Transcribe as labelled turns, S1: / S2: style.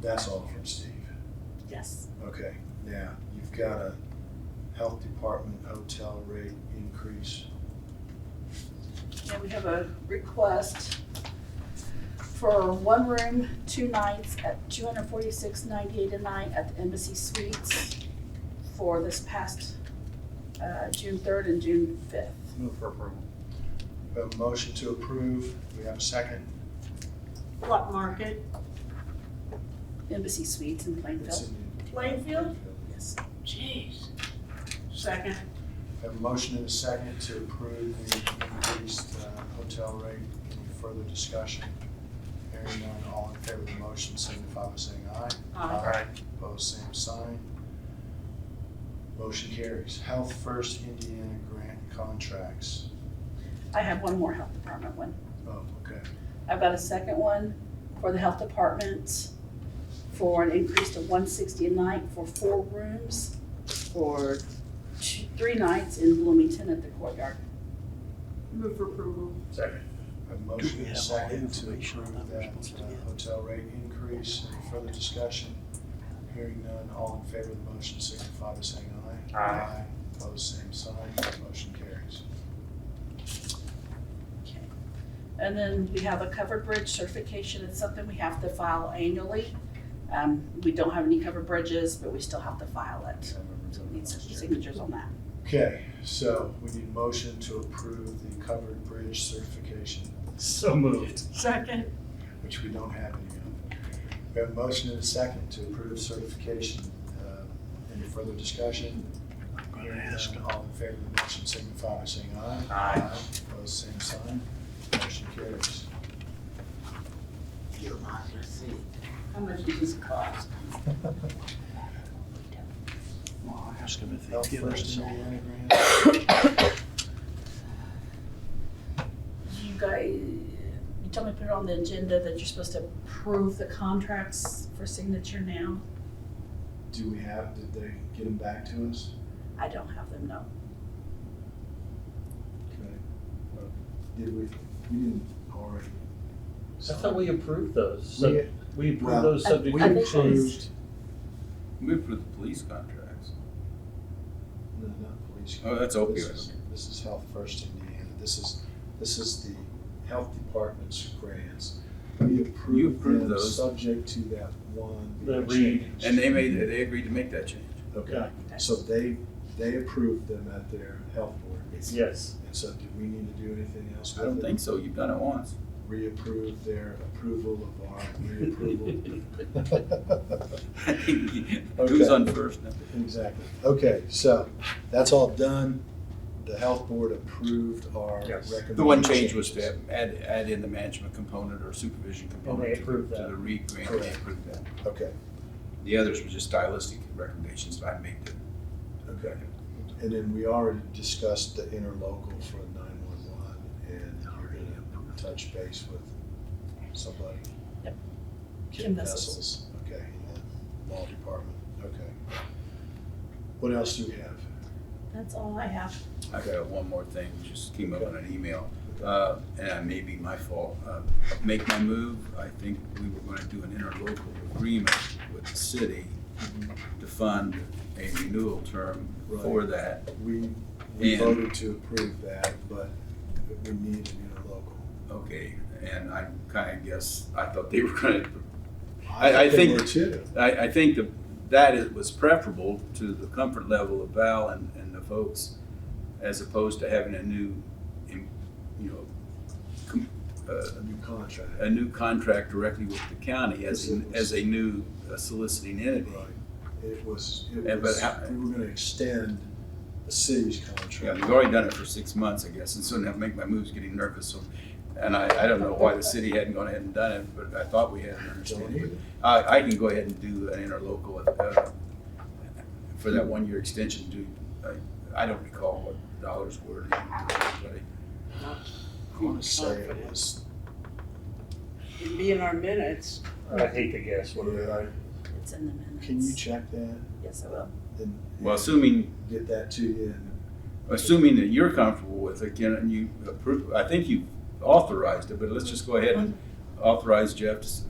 S1: That's all from Steve.
S2: Yes.
S1: Okay, now, you've got a health department hotel rate increase.
S2: And we have a request for one room, two nights at two hundred forty-six ninety-eight a night at the Embassy Suites for this past, uh, June third and June fifth.
S3: Move for approval.
S1: We have a motion to approve. We have a second.
S4: What market?
S2: Embassy Suites in
S1: It's
S2: Plainfield.
S1: in the-
S4: Plainfield?
S2: Yes.
S4: Jeez. Second.
S1: We Have a motion and a second to approve the increased uh, hotel rate. Any further discussion? Hearing none, all in favor of the motion, signify by saying aye.
S4: Aye.
S1: Opposed, same sign. Motion carries. Health First Indiana Grant Contracts.
S2: I have one more health department one.
S1: Oh, okay.
S2: I've got a second one for the health department for an increase to one sixty a night for four rooms for two, three nights in Bloomington at the courtyard.
S4: Move for approval.
S3: Second.
S1: A motion and a
S5: have all the
S1: second to
S5: information
S1: approve
S5: that we're
S1: that
S5: supposed to
S1: uh,
S5: get?
S1: hotel rate increase. Any further discussion? Hearing none, all in favor of the motion signify by saying aye.
S3: Aye.
S1: Opposed, same sign. Motion carries.
S2: Okay. And then we have a covered bridge certification. It's something we have to file annually. Um, we don't have any covered bridges, but we still have to file it. So we need some signatures on that.
S1: Okay, so we need a motion to approve the covered bridge certification,
S3: So moved.
S4: Second.
S1: which we don't have any of. We have a motion and a second to approve certification. Uh, Any further discussion?
S5: gonna
S1: Hearing
S5: ask
S1: none, all in favor of the motion signify by saying aye.
S3: Aye.
S1: Opposed, same sign. Motion carries.
S4: You're not gonna see. How much does this cost?
S5: Well, Ask him if
S1: Health
S5: they've given
S1: First
S5: us all.
S1: Indiana Grant.
S2: You guys, you told me to put it on the agenda that you're supposed to approve the contracts for signature now.
S1: Do we have, did they get them back to us?
S2: I don't have them, no.
S1: Okay. Uh, Did we, we didn't already.
S6: I thought we approved those.
S1: We-
S6: So we
S1: well,
S6: approved those subject
S1: We
S2: I
S6: to
S2: think-
S6: change.
S1: approved,
S7: Move for the police contracts.
S1: no, not police.
S7: Oh, that's
S1: This
S7: opioid.
S1: is, this is Health First Indiana. This is, this is the health department's grants. We approved
S7: approved
S1: them,
S7: those.
S1: subject to that one.
S3: The re-
S1: change.
S7: And they made, they agreed to make that change.
S1: Okay,
S3: Yeah.
S1: so they, they approved them at their health board.
S3: Yes.
S1: And so do we need to do anything else
S7: I
S1: with it?
S7: don't think so. You've done it once.
S1: Reapprove their approval of our reapproval.
S7: Who's on first now?
S1: Exactly. Okay, so that's all done. The health board approved our
S3: Yes.
S1: recommended.
S7: The one change was to
S1: changes.
S7: add, add in the management component or supervision
S3: they
S7: component to
S3: approved
S7: to
S3: that.
S7: the REAP grant. They
S1: Correct.
S7: approved that.
S1: Okay,
S7: The others were just stylistic recommendations that I made to.
S1: okay. And then we already discussed the interlocal for nine-one-one and you're gonna touch base with somebody.
S2: Yep.
S1: Kim
S2: Kim Vessels.
S1: Vessels, okay, in the law department, okay. What else do we have?
S2: That's all I have.
S7: I've
S1: Okay.
S7: got one more thing, just came up
S1: Okay.
S7: on an email, uh, and it may be my fault. Uh, Make my move, I think we were gonna do an interlocal agreement with the city to fund a renewal term for that.
S1: We, we
S7: And-
S1: voted to approve that, but we need an interlocal.
S7: Okay, and I kinda guess, I thought they were gonna, I- I think-
S1: they were too.
S7: I, I think the, that it was preferable to the comfort level of Val and, and the folks as opposed to having a new, em- you know, com- uh,
S1: a new contract.
S7: a new contract directly with the county as, a- as a new uh, soliciting entity.
S1: Right. It was,
S7: Yeah,
S1: it
S7: but
S1: was,
S7: how-
S1: we were gonna extend the city's
S7: Yeah,
S1: contract.
S7: we've already done it for six months, I guess, and so now make my moves getting nervous, so, and I, I don't know why the city hadn't gone ahead and done it, but I thought we had an
S1: Don't
S7: understanding.
S1: need it.
S7: I, I can go ahead and do an interlocal, uh, for that one-year extension, do, I, I don't recall what dollars were.
S1: I wanna say it was,
S4: It'd be in our minutes.
S3: I hate to guess what it is.
S2: It's in the minutes.
S1: can you check that
S2: Yes, I will.
S1: and
S7: Well, assuming,
S1: get that to you? and-
S7: assuming that you're comfortable with it, can you approve, I think you authorized it, but let's just go ahead and authorize Jeff to s-